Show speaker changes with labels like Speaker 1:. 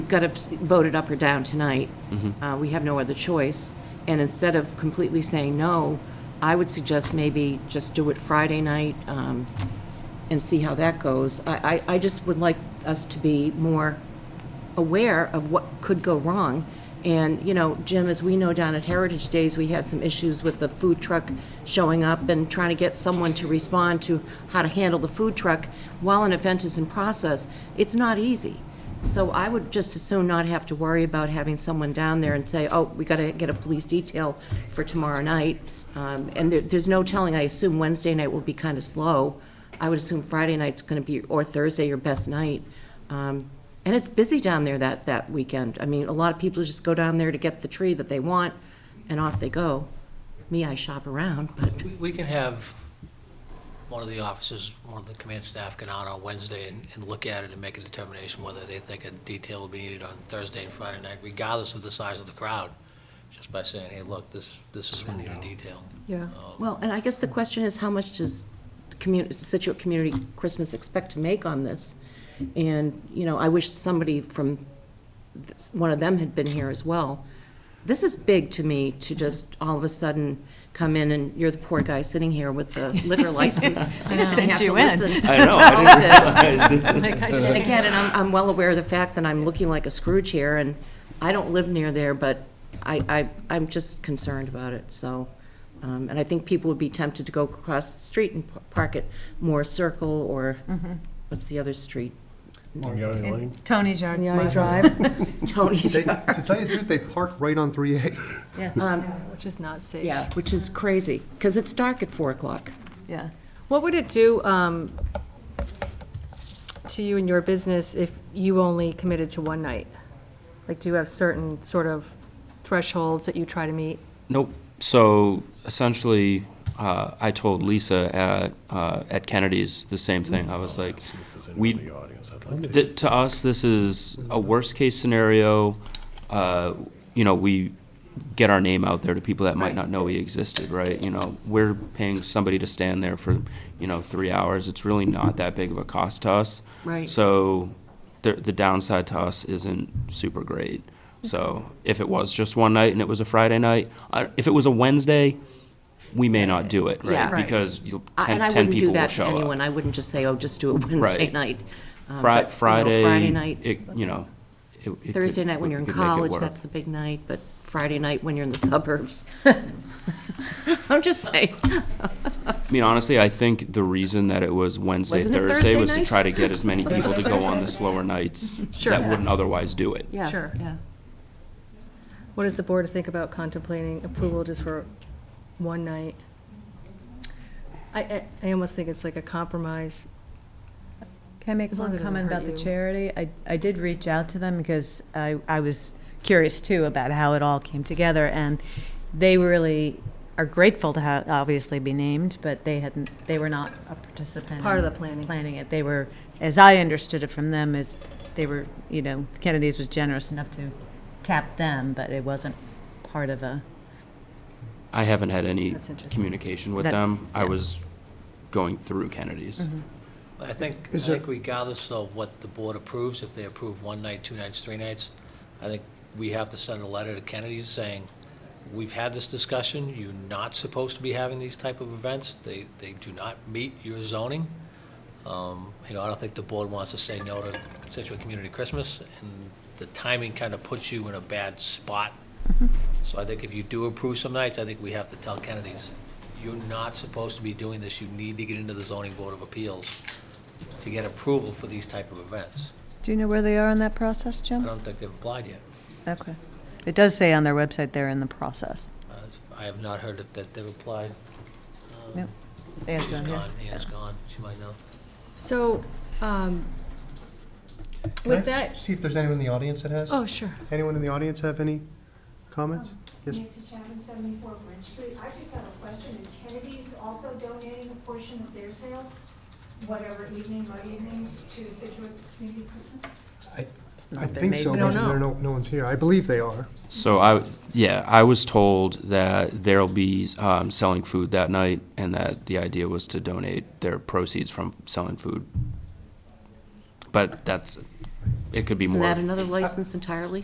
Speaker 1: got to vote it up or down tonight. Uh, We have no other choice. And instead of completely saying no, I would suggest maybe just do it Friday night um, and see how that goes. I, I I just would like us to be more aware of what could go wrong. And, you know, Jim, as we know down at Heritage Days, we had some issues with the food truck showing up and trying to get someone to respond to how to handle the food truck while an event is in process. It's not easy. So I would just as soon not have to worry about having someone down there and say, oh, we got to get a police detail for tomorrow night. Um, And there- there's no telling, I assume Wednesday night will be kind of slow. I would assume Friday night's going to be, or Thursday, your best night. Um, And it's busy down there that, that weekend. I mean, a lot of people just go down there to get the tree that they want, and off they go. Me, I shop around, but,
Speaker 2: We- We can have one of the officers, one of the command staff get out on Wednesday and, and look at it and make a determination whether they think a detail will be needed on Thursday and Friday night, regardless of the size of the crowd, just by saying, hey, look, this, this is going to need a detail.
Speaker 3: Yeah.
Speaker 1: well, and I guess the question is, how much does community, Situate Community Christmas expect to make on this? And, you know, I wish somebody from, this- one of them had been here as well. This is big to me, to just all of a sudden come in and you're the poor guy sitting here with the liquor license.
Speaker 3: I just
Speaker 1: and
Speaker 3: sent
Speaker 1: have
Speaker 3: you
Speaker 1: to
Speaker 3: in.
Speaker 1: listen
Speaker 4: I know,
Speaker 1: to
Speaker 4: I
Speaker 1: all
Speaker 4: didn't
Speaker 1: of this.
Speaker 3: Like, I
Speaker 1: And
Speaker 3: just-
Speaker 1: again, and I'm, I'm well aware of the fact that I'm looking like a Scrooge here, and I don't live near there, but I, I, I'm just concerned about it, so. Um, and I think people would be tempted to go across the street and pa- park at Moore Circle, or, what's the other street?
Speaker 5: Moriarty Lane.
Speaker 6: Tony's yard.
Speaker 3: Yeah, I
Speaker 6: was-
Speaker 3: drive,
Speaker 1: Tony's,
Speaker 5: They- To tell you the truth, they park right on 3A.
Speaker 3: which is not safe.
Speaker 1: yeah, which is crazy, because it's dark at four o'clock.
Speaker 6: Yeah.
Speaker 3: What would it do um, to you and your business if you only committed to one night? Like, do you have certain sort of thresholds that you try to meet?
Speaker 4: Nope. So essentially, uh, I told Lisa at, uh, at Kennedy's the same thing. I was like, we, th- to us, this is a worst-case scenario. Uh, You know, we get our name out there to people that might
Speaker 3: Right.
Speaker 4: not know we existed, right? You know, we're paying somebody to stand there for, you know, three hours. It's really not that big of a cost to us.
Speaker 1: Right.
Speaker 4: So the, the downside to us isn't super great. So
Speaker 1: Mm-hmm.
Speaker 4: if it was just one night and it was a Friday night, I- if it was a Wednesday, we may not do it,
Speaker 1: Yeah.
Speaker 4: right?
Speaker 1: Right.
Speaker 4: Because you'll-
Speaker 1: I-
Speaker 4: ten
Speaker 1: And I
Speaker 4: 10
Speaker 1: wouldn't do
Speaker 4: people will
Speaker 1: that to
Speaker 4: show
Speaker 1: anyone,
Speaker 4: up.
Speaker 1: I wouldn't just say, oh, just do it Wednesday
Speaker 4: Right.
Speaker 1: night. Um,
Speaker 4: Fri-
Speaker 1: but, you know,
Speaker 4: Friday.
Speaker 1: Friday night.
Speaker 4: It, you know. it- it could-
Speaker 1: Thursday night when
Speaker 4: we
Speaker 1: you're in
Speaker 4: could make it
Speaker 1: college,
Speaker 4: work.
Speaker 1: that's the big night, but Friday night when you're in the suburbs. I'm just saying.
Speaker 4: I mean, honestly, I think the reason that it was Wednesday,
Speaker 1: Wasn't it
Speaker 4: Thursday,
Speaker 1: Thursday
Speaker 4: was to
Speaker 1: nights?
Speaker 4: try to get as many people to go on the slower nights
Speaker 3: Sure.
Speaker 4: that wouldn't otherwise do it.
Speaker 1: Yeah,
Speaker 3: Sure.
Speaker 1: yeah.
Speaker 3: What does the board think about contemplating approval just for one night? I- I, I almost think it's like a compromise.
Speaker 6: Can I make
Speaker 3: As long
Speaker 6: one
Speaker 3: as it doesn't
Speaker 6: comment about
Speaker 3: hurt
Speaker 6: the
Speaker 3: you.
Speaker 6: charity? I, I did reach out to them because I, I was curious too about how it all came together. And they really are grateful to have, obviously be named, but they hadn't, they were not a participant.
Speaker 3: Part of
Speaker 6: in
Speaker 3: the planning.
Speaker 6: Planning it. They were, as I understood it from them, is they were, you know, Kennedy's was generous enough to tap them, but it wasn't part of a.
Speaker 4: I haven't had any
Speaker 3: That's interesting.
Speaker 4: communication with
Speaker 6: That-
Speaker 4: them. I was going through Kennedy's.
Speaker 3: Mm-hmm.
Speaker 2: But I think, I
Speaker 5: Is
Speaker 2: think
Speaker 5: it-
Speaker 2: regardless of what the board approves, if they approve one night, two nights, three nights, I think we have to send a letter to Kennedy's saying, we've had this discussion, you're not supposed to be having these type of events, they, they do not meet your zoning. Um, You know, I don't think the board wants to say no to Situate Community Christmas, and the timing kind of puts you in a bad spot. So I think if you do approve some nights, I think we have to tell Kennedy's, you're not supposed to be doing this, you need to get into the zoning board of appeals to get approval for these type of events.
Speaker 6: Do you know where they are in that process,
Speaker 2: I
Speaker 6: Jim?
Speaker 2: don't think they've applied yet.
Speaker 6: Okay. It does say on their website they're in the process.
Speaker 2: Uh, I have not heard that- that they've applied.
Speaker 6: Nope. They
Speaker 2: Anne's
Speaker 6: answer on here.
Speaker 2: gone, Anne's gone, she might know.
Speaker 3: So, um,
Speaker 5: Can I
Speaker 3: with that,
Speaker 5: See if there's anyone in the audience that has?
Speaker 3: oh, sure.
Speaker 5: Anyone in the audience have any comments? Yes,
Speaker 7: Nancy Chapman, 74 Bridge Street. I just have a question. Is Kennedy's also donating a portion of their sales, whatever evening by evenings, to Situate Community Christmas?
Speaker 5: I,
Speaker 6: It's
Speaker 5: I
Speaker 6: not been
Speaker 5: think
Speaker 6: made
Speaker 5: so,
Speaker 3: We
Speaker 5: but
Speaker 3: don't
Speaker 5: there,
Speaker 3: know.
Speaker 5: no, no one's here. I believe they are.
Speaker 4: So I, yeah, I was told that there'll be um, selling food that night, and that the idea was to donate their proceeds from selling food. But that's it could be
Speaker 1: Isn't
Speaker 4: more.
Speaker 1: that another license entirely?